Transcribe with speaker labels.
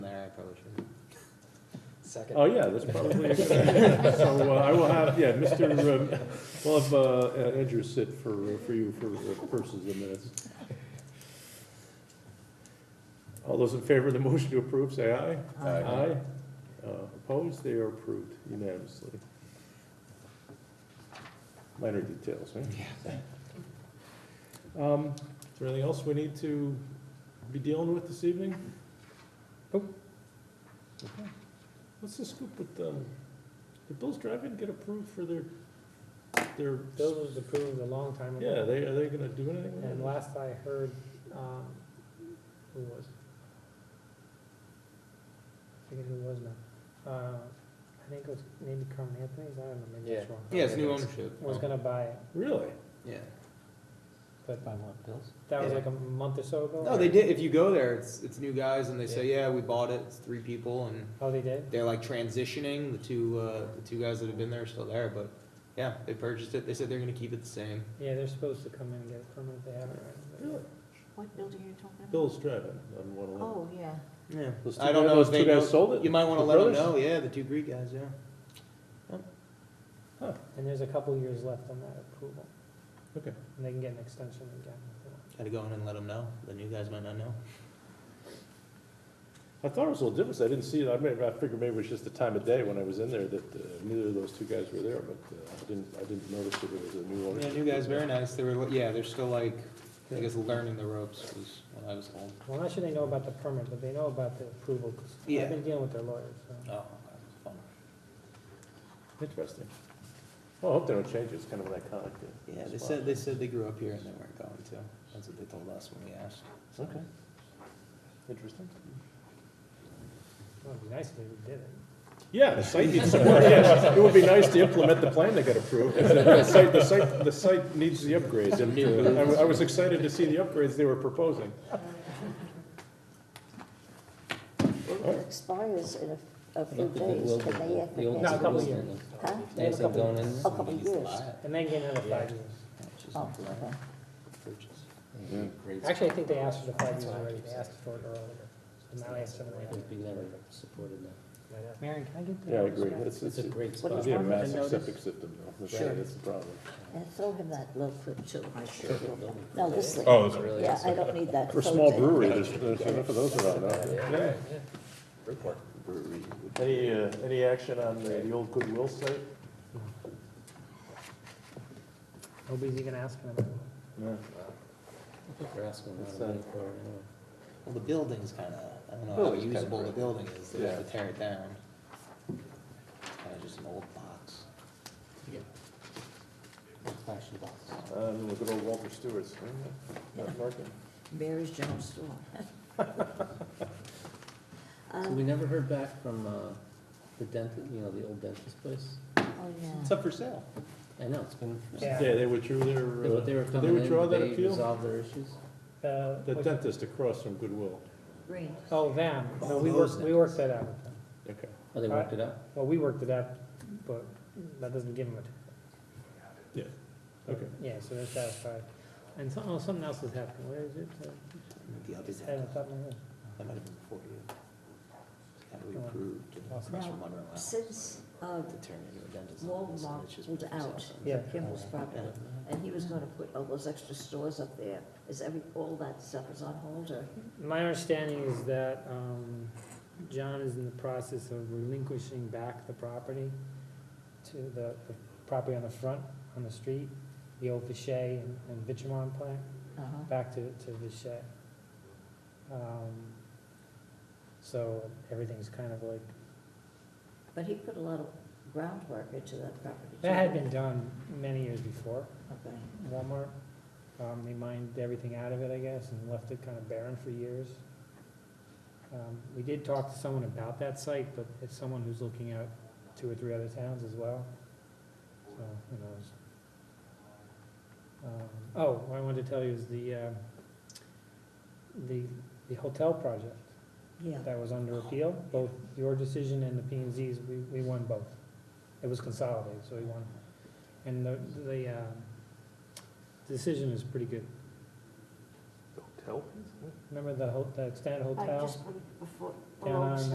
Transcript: Speaker 1: Second.
Speaker 2: Oh, yeah, that's probably a good idea. So uh, I will have, yeah, Mr., um, we'll have uh, Andrew sit for, for you for uh, purposes of minutes. All those in favor of the motion to approve, say aye.
Speaker 3: Aye.
Speaker 2: Aye. Uh, Opposed, they are approved unanimously. Minor details, right? Um, Is there anything else we need to be dealing with this evening? Nope. Okay. What's the scoop with, um, did Bill's Drive-In get approved for their, their,
Speaker 4: Those was approved a long time ago.
Speaker 2: yeah, they, are they gonna do anything with
Speaker 4: And
Speaker 2: it?
Speaker 4: last I heard, um, who was? I forget who it was now. Uh, I think it was maybe Carmen Anthony's, I don't know, maybe it's
Speaker 1: Yeah.
Speaker 4: wrong.
Speaker 3: Yeah, it's new ownership.
Speaker 4: Was gonna buy it,
Speaker 2: Really?
Speaker 3: Yeah.
Speaker 4: but
Speaker 1: By what, Bills?
Speaker 4: that was
Speaker 3: Yeah.
Speaker 4: like a month or so
Speaker 2: Oh,
Speaker 4: ago.
Speaker 3: No, they did, if you go there, it's, it's new guys and they say, yeah, we bought it, it's three people and
Speaker 4: Oh, they did?
Speaker 3: they're like transitioning, the two, uh, the two guys that have been there are still there, but yeah, they purchased it, they said they're gonna keep it the same.
Speaker 4: Yeah, they're supposed to come in and get a permit, they haven't. right?
Speaker 2: Really?
Speaker 5: What building are you talking about?
Speaker 2: Bill's Drive-In on one eleven.
Speaker 5: Oh, yeah.
Speaker 3: Yeah.
Speaker 2: Those two
Speaker 3: I don't
Speaker 2: guys-
Speaker 3: know if
Speaker 2: those
Speaker 3: they
Speaker 2: two guys
Speaker 3: know-
Speaker 2: sold it?
Speaker 3: You might wanna
Speaker 2: The
Speaker 3: let them
Speaker 2: brothers?
Speaker 3: know, yeah, the two Greek guys, yeah.
Speaker 4: And there's a couple years left on that approval,
Speaker 2: Okay.
Speaker 4: and they can get an extension again. if they want.
Speaker 3: Gotta go in and let them know, the new guys might not know.
Speaker 2: I thought it was a little different, I didn't see it, I may, I figured maybe it was just the time of day when I was in there that uh, neither of those two guys were there, but uh, I didn't, I didn't notice that it was a new owner.
Speaker 3: Yeah, new guys, very nice, they were, yeah, they're still like, I guess, learning the ropes was when I was home.
Speaker 4: Well, not sure they know about the permit, but they know about the approval, because
Speaker 3: Yeah.
Speaker 4: I've been dealing with their lawyers, so.
Speaker 3: Oh, fun.
Speaker 2: Interesting. Well, I hope they don't change it, it's kind of an iconic. uh,
Speaker 3: Yeah, they
Speaker 2: spot.
Speaker 3: said, they said they grew up here and they weren't going to. That's what they told us when we asked. So-
Speaker 2: Okay. Interesting.
Speaker 4: Well, it'd be nice if they did it.
Speaker 2: Yeah, the site needs some work, yes. It would be nice to implement the plan that got approved. The site, the site, the site needs the upgrades, and uh, I wa- I was excited to see the upgrades they were proposing.
Speaker 6: It expires in a, a few days, can they have
Speaker 1: The old
Speaker 4: No, a couple
Speaker 1: schools,
Speaker 4: years.
Speaker 6: Huh?
Speaker 1: They have some going in.
Speaker 6: A couple
Speaker 3: Somebody
Speaker 6: years.
Speaker 3: used to buy it,
Speaker 4: And then get another five years.
Speaker 3: which is
Speaker 6: Oh,
Speaker 3: not
Speaker 6: okay.
Speaker 3: right, purchase.
Speaker 4: Actually, I think they asked for the five years already, they asked for it earlier, so now they have seven and a half.
Speaker 1: We never supported that.
Speaker 4: Marion, can I get
Speaker 2: Yeah, I agree. It's,
Speaker 1: It's a great
Speaker 6: What
Speaker 1: spot.
Speaker 6: is
Speaker 2: It'd be a
Speaker 6: one with a
Speaker 2: massive
Speaker 6: notice?
Speaker 2: septic system, though. That's-
Speaker 1: Sure.
Speaker 2: That's the problem.
Speaker 6: And throw him that little clip too. No, this thing.
Speaker 1: Oh, really?
Speaker 6: Yeah, I don't need that.
Speaker 2: For
Speaker 6: photo.
Speaker 2: small brewery, there's, there's enough of those around now. Yeah.
Speaker 3: Brewery.
Speaker 2: Any, uh, any action on uh, the old Goodwill site?
Speaker 4: Nobody's even asking about it.
Speaker 2: No.
Speaker 1: We're asking a lot of
Speaker 2: It's, uh,
Speaker 1: money for it anyway.
Speaker 3: Well, the building's kinda, I don't know how
Speaker 2: Building's kinda
Speaker 3: usable the
Speaker 2: broken.
Speaker 3: building is. They have
Speaker 2: Yeah.
Speaker 3: to tear it down. It's kinda just an old box.
Speaker 1: Fashion box.
Speaker 2: Um, look at old Walter Stewart's, not Larkin.
Speaker 6: Mary's General Store.
Speaker 1: So
Speaker 6: Um,
Speaker 1: we never heard back from, uh, the dentist, you know, the old dentist place?
Speaker 6: oh,
Speaker 3: It's
Speaker 6: yeah.
Speaker 3: up for sale.
Speaker 1: I know, it's been.
Speaker 4: Yeah.
Speaker 2: Yeah, they withdrew their,
Speaker 1: They were- they were
Speaker 2: uh,
Speaker 1: coming
Speaker 2: they
Speaker 1: in,
Speaker 2: withdraw
Speaker 1: did
Speaker 2: that
Speaker 1: they
Speaker 2: appeal?
Speaker 1: resolve their issues?
Speaker 4: Uh,
Speaker 2: The
Speaker 4: what's-
Speaker 2: dentist across from Goodwill.
Speaker 6: Green.
Speaker 4: Oh, them, no,
Speaker 3: Oh,
Speaker 4: we
Speaker 3: those
Speaker 4: worked, we worked that out with them.
Speaker 2: Okay.
Speaker 1: Oh, they worked it out?
Speaker 4: Well, we worked it out, but that doesn't give them a.
Speaker 2: Yeah, okay.
Speaker 4: Yeah, so they're satisfied. And some, oh, something else is happening, where is it? Uh,
Speaker 3: The other
Speaker 4: it's out of the top of my head.
Speaker 3: That might have been before you. That we
Speaker 4: Oh.
Speaker 3: approved. uh,
Speaker 4: Awesome.
Speaker 3: across
Speaker 6: Now,
Speaker 3: from Monroe House.
Speaker 6: Since, uh,
Speaker 3: To turn into a dentist office, and it's
Speaker 6: Walmart
Speaker 3: just
Speaker 6: was
Speaker 3: really
Speaker 6: out,
Speaker 3: awesome.
Speaker 4: Yeah.
Speaker 6: Kimball's property, and he was gonna put all those extra stores up there, is every, all that stuff is on hold or?
Speaker 4: My understanding is that um, John is in the process of relinquishing back the property to the the property on the front, on the street, the old Vichay and- and Vichamon plant,
Speaker 6: Uh-huh.
Speaker 4: back to, to Vichay. Um, So everything's kind of like,
Speaker 6: But he put a lot of groundwork into that property.
Speaker 4: that had
Speaker 6: too.
Speaker 4: been done many years before
Speaker 6: Okay.
Speaker 4: Walmart. Um, They mined everything out of it, I guess, and left it kind of barren for years. Um, We did talk to someone about that site, but it's someone who's looking at two or three other towns as well. So, who knows? Um, Oh, what I wanted to tell you is the, um, the, the hotel project
Speaker 6: Yeah.
Speaker 4: that was under appeal, both your decision and the P and Z's, we, we won both. It was consolidated, so we won. And the, the, um, decision is pretty good.
Speaker 2: Hotel?
Speaker 4: Remember the ho, the extended
Speaker 6: I
Speaker 4: hotel?
Speaker 6: just put it before,
Speaker 4: Down
Speaker 6: below
Speaker 4: on